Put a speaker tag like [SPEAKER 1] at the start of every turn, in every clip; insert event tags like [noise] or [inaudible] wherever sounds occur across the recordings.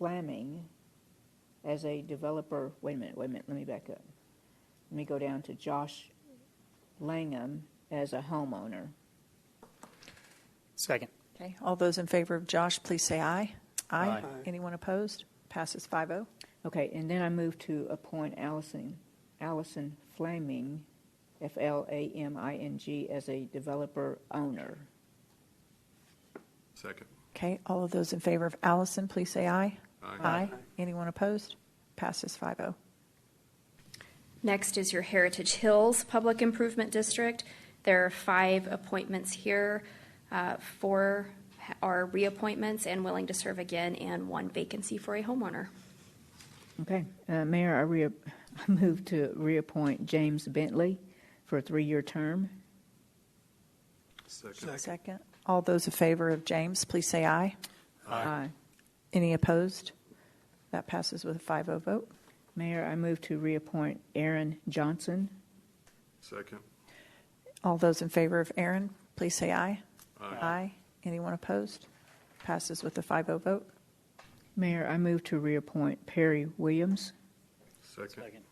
[SPEAKER 1] Flaming as a developer, wait a minute, wait a minute, let me back up. Let me go down to Josh Langham as a homeowner.
[SPEAKER 2] Second.
[SPEAKER 3] Okay, all those in favor of Josh, please say aye.
[SPEAKER 2] Aye.
[SPEAKER 3] Anyone opposed? Passes oh. 5-0.
[SPEAKER 1] Okay, and then I move to appoint Allison, Allison Flaming, F-L-A-M-I-N-G, as a developer owner.
[SPEAKER 4] Second.
[SPEAKER 3] Okay, all of those in favor of Allison, please say aye.
[SPEAKER 4] Aye.
[SPEAKER 3] Anyone opposed? Passes oh. 5-0.
[SPEAKER 5] Next is your Heritage Hills Public Improvement District. There are five appointments here. Uh, Four ha- are reappointments and willing to serve again, and one vacancy for a homeowner.
[SPEAKER 1] Okay, uh, Mayor, I re, [laughs] I move to reappoint James Bentley for a three-year term.
[SPEAKER 4] Second.
[SPEAKER 3] Second, all those in favor of James, please say aye.
[SPEAKER 1] Aye.
[SPEAKER 3] Any opposed? That passes with a 5-0 vote.
[SPEAKER 1] Mayor, I move to reappoint Aaron Johnson.
[SPEAKER 4] Second.
[SPEAKER 3] All those in favor of Aaron, please say aye. Aye. Anyone opposed? Passes with a 5-0 vote.
[SPEAKER 1] Mayor, I move to reappoint Perry Williams.
[SPEAKER 4] Second.
[SPEAKER 2] Second.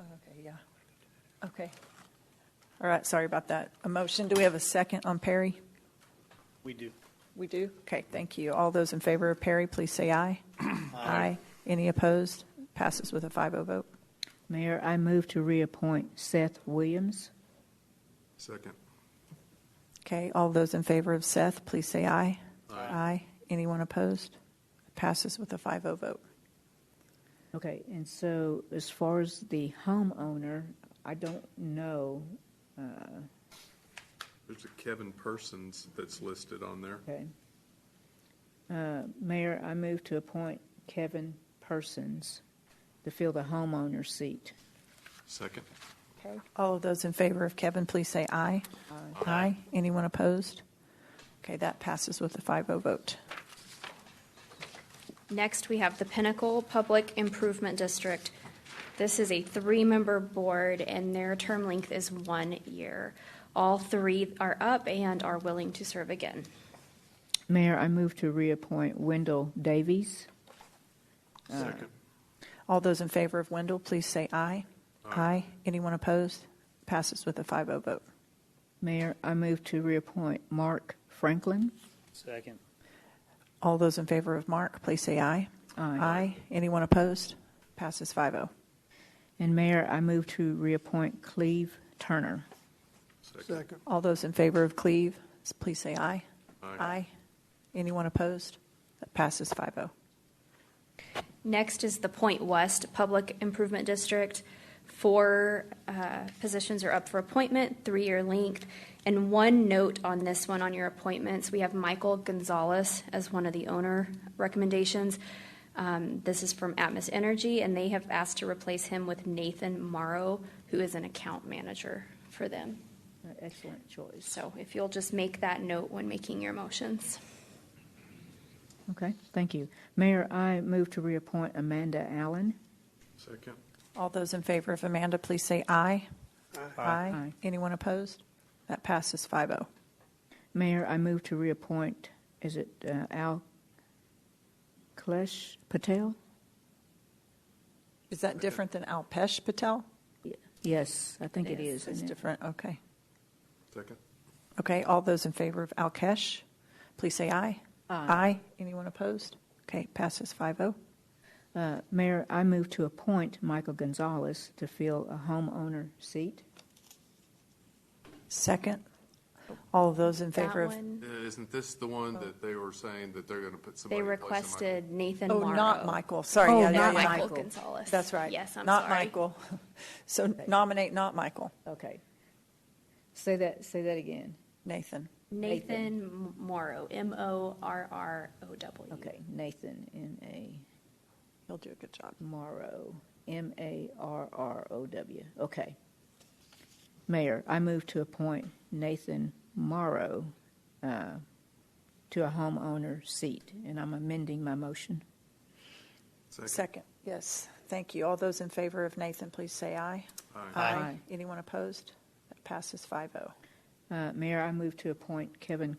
[SPEAKER 3] Okay, yeah. Okay. All right, sorry about that. A motion, do we have a second on Perry?
[SPEAKER 2] We do.
[SPEAKER 3] We do. Okay, thank you. All those in favor of Perry, please say aye. Aye. Any opposed? Passes with a 5-0 vote.
[SPEAKER 1] Mayor, I move to reappoint Seth Williams.
[SPEAKER 4] Second.
[SPEAKER 3] Okay, all those in favor of Seth, please say aye. Aye. Anyone opposed? Passes with a 5-0 vote.
[SPEAKER 1] Okay, and so as far as the homeowner, I don't know,
[SPEAKER 4] There's a Kevin Persons that's listed on there.
[SPEAKER 1] okay. Uh, Mayor, I move to appoint Kevin Persons to fill the homeowner seat.
[SPEAKER 4] Second.
[SPEAKER 3] Okay. All of those in favor of Kevin, please say aye. Aye. Anyone opposed? Okay, that passes with a 5-0 vote.
[SPEAKER 5] Next, we have the Pinnacle Public Improvement District. This is a three-member board, and their term length is one year. All three are up and are willing to serve again.
[SPEAKER 1] Mayor, I move to reappoint Wendell Davies.
[SPEAKER 4] Second.
[SPEAKER 3] All those in favor of Wendell, please say aye. Aye. Anyone opposed? Passes with a 5-0 vote.
[SPEAKER 1] Mayor, I move to reappoint Mark Franklin.
[SPEAKER 2] Second.
[SPEAKER 3] All those in favor of Mark, please say aye.
[SPEAKER 1] Aye.
[SPEAKER 3] Anyone opposed? Passes oh. 5-0.
[SPEAKER 1] And Mayor, I move to reappoint Cleve Turner.
[SPEAKER 4] Second.
[SPEAKER 3] All those in favor of Cleve, s- please say aye.
[SPEAKER 4] Aye.
[SPEAKER 3] Anyone opposed? That passes oh. 5-0.
[SPEAKER 5] Next is the Point West Public Improvement District. Four uh, positions are up for appointment, three-year length. And one note on this one, on your appointments, we have Michael Gonzalez as one of the owner recommendations. Um, This is from Atmos Energy, and they have asked to replace him with Nathan Morrow, who is an account manager for them.
[SPEAKER 1] Uh, Excellent choice.
[SPEAKER 5] So if you'll just make that note when making your motions.
[SPEAKER 1] Okay, thank you. Mayor, I move to reappoint Amanda Allen.
[SPEAKER 4] Second.
[SPEAKER 3] All those in favor of Amanda, please say aye.
[SPEAKER 1] Aye.
[SPEAKER 3] Anyone opposed? That passes oh. 5-0.
[SPEAKER 1] Mayor, I move to reappoint, is it uh, Al Klesh Patel?
[SPEAKER 3] Is that different than Alpesh Patel?
[SPEAKER 1] Yes, I think it
[SPEAKER 5] It
[SPEAKER 1] is.
[SPEAKER 3] It's
[SPEAKER 1] isn't it?
[SPEAKER 3] different, okay.
[SPEAKER 4] Second.
[SPEAKER 3] Okay, all those in favor of Alkesh, please say aye. Aye. Anyone opposed? Okay, passes oh. 5-0.
[SPEAKER 1] Uh, Mayor, I move to appoint Michael Gonzalez to fill a homeowner seat.
[SPEAKER 3] Second, all of those in
[SPEAKER 5] That
[SPEAKER 3] favor of.
[SPEAKER 5] one,
[SPEAKER 4] Isn't this the one that they were saying that they're going to put somebody?
[SPEAKER 5] They
[SPEAKER 4] in place of Michael?
[SPEAKER 5] requested Nathan
[SPEAKER 3] Oh,
[SPEAKER 5] Morrow.
[SPEAKER 3] not Michael, sorry.
[SPEAKER 1] Oh,
[SPEAKER 3] yeah, yeah,
[SPEAKER 1] not
[SPEAKER 3] yeah.
[SPEAKER 1] Michael.
[SPEAKER 5] Michael Gonzalez.
[SPEAKER 3] That's right.
[SPEAKER 5] Yes, I'm
[SPEAKER 3] Not
[SPEAKER 5] sorry.
[SPEAKER 3] Michael. [laughs] So nominate not Michael,
[SPEAKER 1] Okay. Say that, say that again.
[SPEAKER 3] Nathan.
[SPEAKER 1] Nathan.
[SPEAKER 5] Nathan Morrow, M-O-R-R-O-W.
[SPEAKER 1] Okay, Nathan, N-A,
[SPEAKER 3] He'll do a good job.
[SPEAKER 1] Morrow, M-A-R-R-O-W. Okay. Mayor, I move to appoint Nathan Morrow uh, to a homeowner seat, and I'm amending my motion.
[SPEAKER 4] Second.
[SPEAKER 3] Second, yes, thank you. All those in favor of Nathan, please say aye.
[SPEAKER 4] Aye.
[SPEAKER 2] Aye.
[SPEAKER 3] Anyone opposed? That passes oh. 5-0.
[SPEAKER 1] Uh, Mayor, I move to appoint Kevin